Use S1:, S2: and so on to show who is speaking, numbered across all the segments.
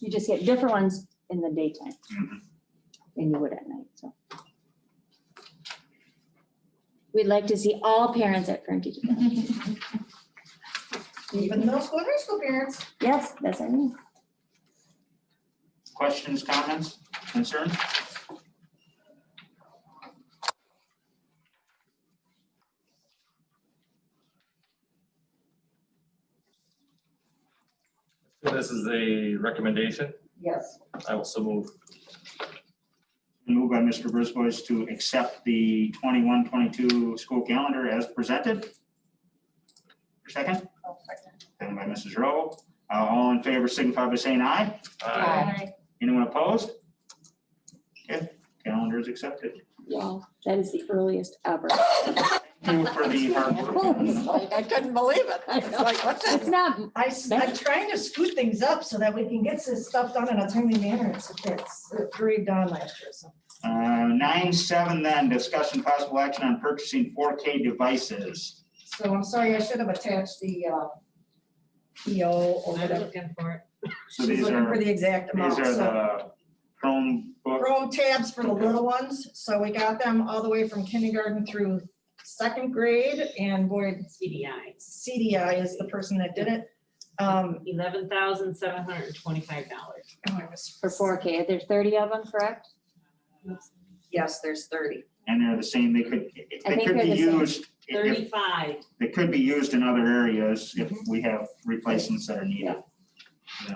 S1: You just get different ones in the daytime
S2: Mhm.
S1: than you would at night, so. We'd like to see all parents at parent teacher. conference.
S3: Even middle school, and high school parents.
S1: Yes, that's what I mean.
S2: Questions, comments, concerns?
S4: So This is a recommendation.
S3: Yes.
S4: I will so move.
S2: Moved by Mr. Brisbois to accept the 21-22 school calendar as presented. Your Second, second by Mrs. Rowe. Uh, All in favor signify by saying aye.
S4: Aye.
S2: Anyone opposed? Okay, calendar is accepted.
S1: Wow, that is the earliest ever.
S2: Thank you For the hard work.
S3: I couldn't believe it.
S1: I
S3: It's
S1: know.
S3: like, what's
S1: It's
S3: that?
S1: not,
S3: I, s- I'm trying to scoot things up so that we can get this stuff done in a timely manner. It's, it's it dragged on last year, so.
S2: Uh, Nine, seven then, discussion possible action on purchasing four K devices.
S3: So I'm sorry, I should have attached the, uh, PO or
S5: I'm
S3: whatever.
S5: looking for it.
S2: So
S3: She's
S2: these
S3: looking for
S2: are,
S3: the exact amount,
S2: these are
S3: so.
S2: the Chromebook
S3: Chrome tabs for the little ones, so we got them all the way from kindergarten through second grade, and boy,
S5: CDI,
S3: CDI is the person that did it. Um,
S5: eleven thousand seven hundred and twenty-five dollars.
S3: oh, I was-
S1: for four K, there's thirty of them, correct?
S3: Yes, there's thirty.
S2: and they're the same, they could,
S1: I
S2: they
S1: think
S2: could
S1: they're
S2: be
S1: the same.
S2: used, if- if,
S5: Thirty-five,
S2: they could be used in other areas if
S1: Mm-hmm.
S2: we have replacements that are needed. Um, Yeah.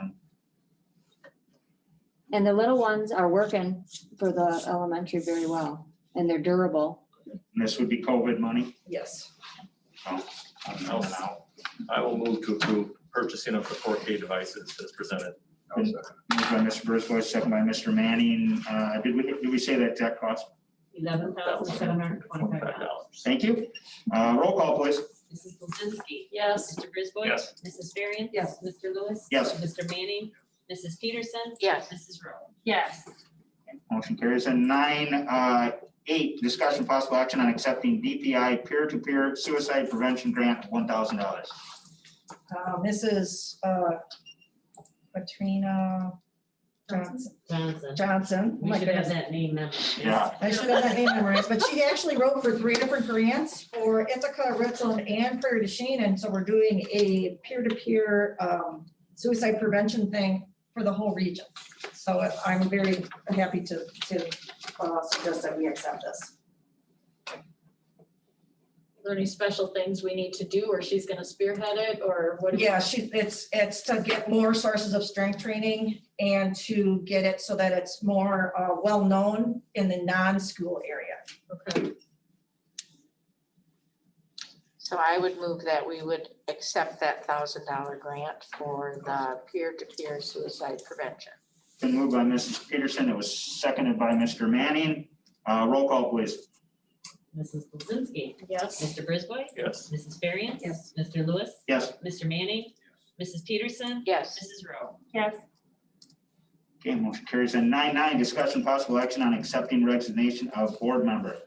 S1: And the little ones are working for the elementary very well, and they're durable.
S2: And This would be COVID money. Oh,
S3: Yes.
S2: I'm not allowed.
S4: I will move to approve purchasing of the four K devices as presented.
S2: Moved by Mr. Brisboy, second by Mr. Manning. Uh, Did we, did we say that exact cost?
S5: eleven thousand seven hundred and twenty-five dollars.
S2: Thank you. Uh, Roll call, please.
S5: Mrs. Blazinski. Yes. Mr. Brisboy.
S4: Yes.
S5: Mrs. Varian.
S3: Yes.
S5: Mr. Lewis.
S2: Yes.
S5: Mr. Manning. Mrs. Peterson.
S6: Yes.
S5: Mrs. Rowe.
S6: Yes.
S2: Motion carries. And nine, uh, eight, discussion possible action on accepting DPI peer-to-peer suicide prevention grant, $1,000.
S3: Um, This is uh, Katrina Johnson.
S5: Johnson.
S3: Johnson. Oh
S5: We
S3: my
S5: should have
S3: goodness.
S5: that name memorized.
S2: Yeah.
S3: I should have that name memorized, but she actually wrote for three different grants for Ithaca, Richland, and Prairie du Chien. And so we're doing a peer-to-peer um, suicide prevention thing for the whole region. So I'm very happy to, to uh, suggest that we accept this.
S6: Are there any special things we need to do, or she's gonna spearhead it, or what? do we-
S3: Yeah, she, it's, it's to get more sources of strength training and to get it so that it's more uh, well-known in the non-school area.
S6: Okay.
S7: So I would move that we would accept that thousand dollar grant for the peer-to-peer suicide prevention.
S2: Been moved by Mrs. Peterson. It was seconded by Mr. Manning. Uh, Roll call, please.
S5: Mrs. Blazinski.
S6: Yes.
S5: Mr. Brisboy.
S4: Yes.
S5: Mrs. Varian. Yes. Mr. Lewis.
S2: Yes.
S5: Mr. Manning. Mrs. Peterson.
S7: Yes,
S5: Mrs. Rowe.
S6: Yes.
S2: Okay, motion carries. And nine nine, discussion possible action on accepting resignation of board member.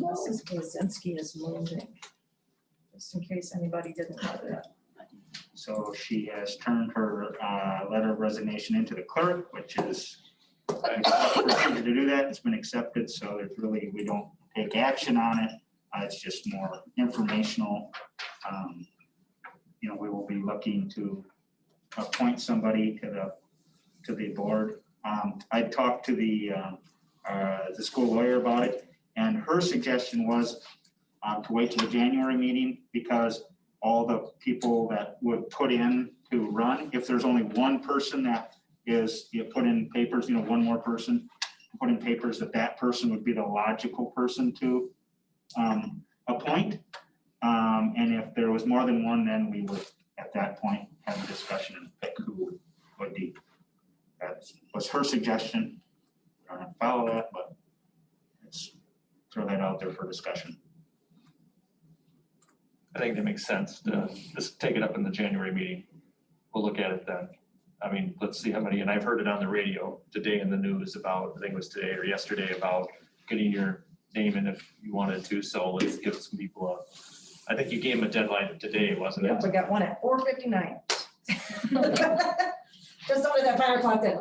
S3: Mrs. Blazinski is moving. Just in case anybody didn't know that.
S2: So she has turned her uh, letter of resignation into the clerk, which is procedure to do that. It's been accepted, so there's really, we don't take action on it. Uh, It's just more informational. Um, You know, we will be looking to appoint somebody to the, to the board. Um, I talked to the, um, uh, the school lawyer about it, and her suggestion was uh, to wait till the January meeting because all the people that would put in to run, if there's only one person that is, you put in papers, you know, one more person, put in papers that that person would be the logical person to um, appoint. Um, And if there was more than one, then we would, at that point, have a discussion and pick who would be. That was her suggestion. I don't follow that, but let's throw that out there for discussion.
S4: I think that makes sense. to Just take it up in the January meeting. We'll look at it then. I mean, let's see how many, and I've heard it on the radio today in the news about, I think it was today or yesterday, about getting your name in if you wanted to. So let's give some people a, I think you gave them a deadline today, wasn't it?
S3: Yep, we got one at four fifty-nine. just under that five o'clock deadline.